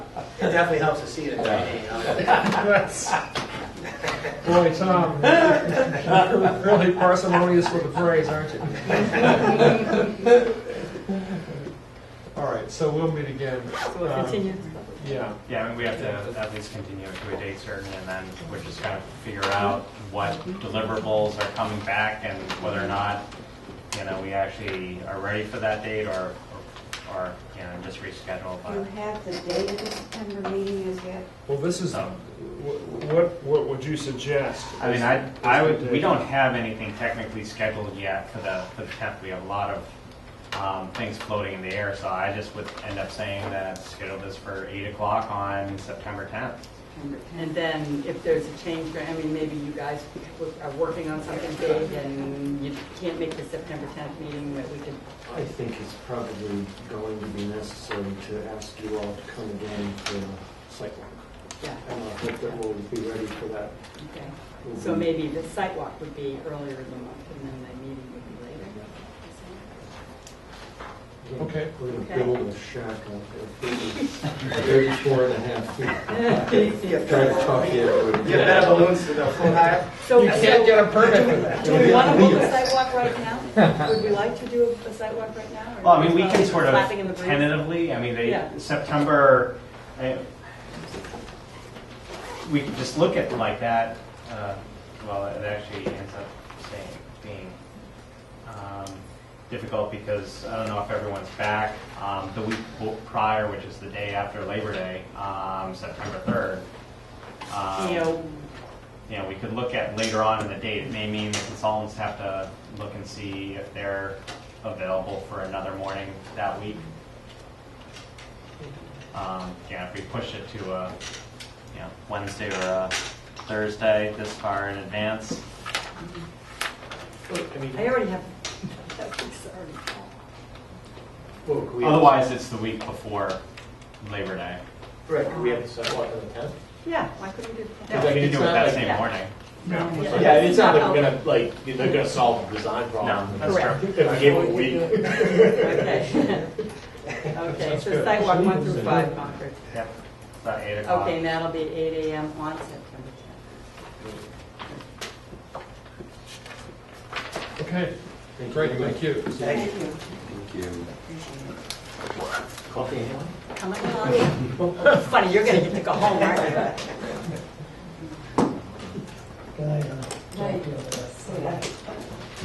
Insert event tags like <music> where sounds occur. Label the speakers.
Speaker 1: It definitely helps to see it in 3D. huh?
Speaker 2: That's, boy, Tom, you're really parsimonious with the praise, aren't you? All right, so we'll meet again.
Speaker 3: So we'll
Speaker 2: Um,
Speaker 3: continue.
Speaker 2: Yeah,
Speaker 4: Yeah, I mean, we have to at least continue it to a date certain, and then we're just gonna figure out what deliverables are coming back and whether or not, you know, we actually are ready for that date or, or- or, you know, just reschedule.
Speaker 5: You
Speaker 4: But
Speaker 5: have the date of the September meeting as yet?
Speaker 2: well, this is, wh-
Speaker 4: Um,
Speaker 2: wh- what, what would you suggest?
Speaker 4: I mean, I, I would, we don't have anything technically scheduled yet for the, for the tenth. We have a lot of, um, things floating in the air, so I just would end up saying that schedule this for eight o'clock on September tenth.
Speaker 3: And then if there's a change, I mean, maybe you guys are working on something big and you can't make the September 10th meeting, that we could,
Speaker 6: I think it's probably going to be necessary to ask you all to come again for a site walk.
Speaker 3: yeah,
Speaker 6: And I hope that we'll be ready for that.
Speaker 3: okay. So maybe the sidewalk would be earlier in the month and then the meeting would be later.
Speaker 2: Okay.
Speaker 6: We're gonna
Speaker 3: Okay.
Speaker 6: build a shack out there. Thirty-four and a half
Speaker 3: <laughs>
Speaker 6: feet. Try to talk you out of it.
Speaker 1: You have better balloons to go full high.
Speaker 3: So,
Speaker 2: a permit for that.
Speaker 3: do we want to
Speaker 4: <laughs>
Speaker 3: hold a sidewalk right now? Would we like to do a sidewalk right now? or
Speaker 4: Well, I mean, we
Speaker 3: just
Speaker 4: can sort of
Speaker 3: clapping Oh, in the breeze?
Speaker 4: tentatively, I mean,
Speaker 3: Yeah.
Speaker 4: they, September, eh, we could just look at like that, uh, well, it actually ends up saying, being um, difficult because I don't know if everyone's back. um, The week bo- prior, which is the day after Labor Day, um, September 3rd. um,
Speaker 3: You know,
Speaker 4: you know, we could look at later on in the date, it may mean the consultants have to look and see if they're available for another morning that week. Um, yeah, if we push it to, uh, you know, Wednesday or, uh, Thursday this far in advance.
Speaker 3: I already have, <laughs> that week's already full.
Speaker 1: Well, could we-
Speaker 4: Otherwise, it's the week before Labor Day.
Speaker 1: Rick, could we have the sidewalk on the tenth?
Speaker 3: Yeah, why couldn't we do that?
Speaker 4: We can do it that same
Speaker 3: Yeah.
Speaker 4: morning.
Speaker 3: Yeah.
Speaker 7: Yeah, it's not like we're gonna, like, they're gonna solve the design
Speaker 4: No,
Speaker 7: problem.
Speaker 4: that's
Speaker 3: Correct.
Speaker 4: true.
Speaker 7: If we gave them a week.
Speaker 3: Okay. Okay, so sidewalk one through five Concord.
Speaker 4: Yep, about eight o'clock.
Speaker 3: Okay, and that'll be eight AM on September
Speaker 2: Okay, great, thank you.
Speaker 1: Thank you.
Speaker 7: Coffee and ham?
Speaker 3: 10th. How much longer? Funny, you're gonna get to go home, aren't you?